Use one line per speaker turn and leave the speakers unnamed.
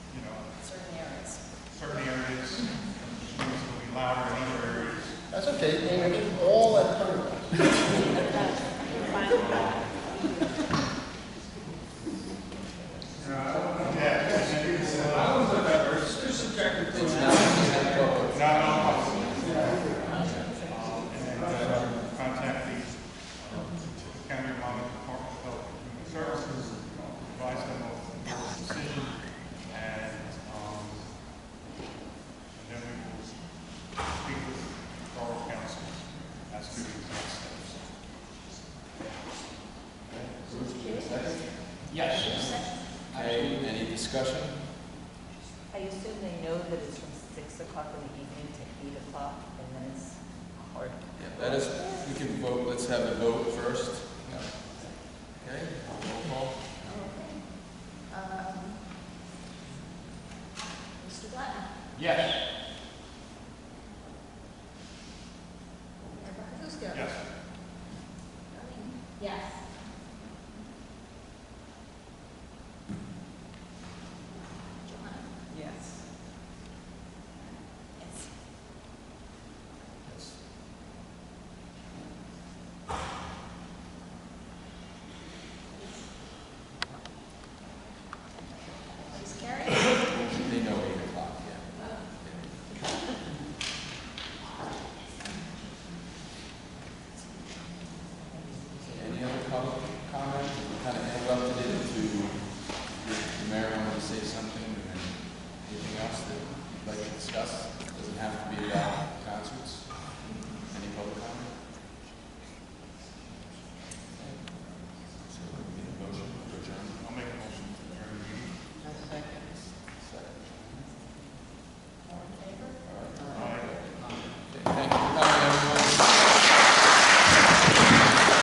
I assume they know that it's from six o'clock in the evening to eight o'clock, and then it's hard.
Yeah, that is, we can vote, let's have a vote first. Yeah. Okay, roll call.
Um, Mr. Glavine.
Yes.
Mayor Baratusko.
Yes.
Darlene. Yes. Johanna.
Yes.
Yes.
Yes.
She's carried.
They know eight o'clock, yeah. Okay, Any other public comment? We Kind of interrupted it to, Mary wanted to say something, and then anything else that you'd like to discuss?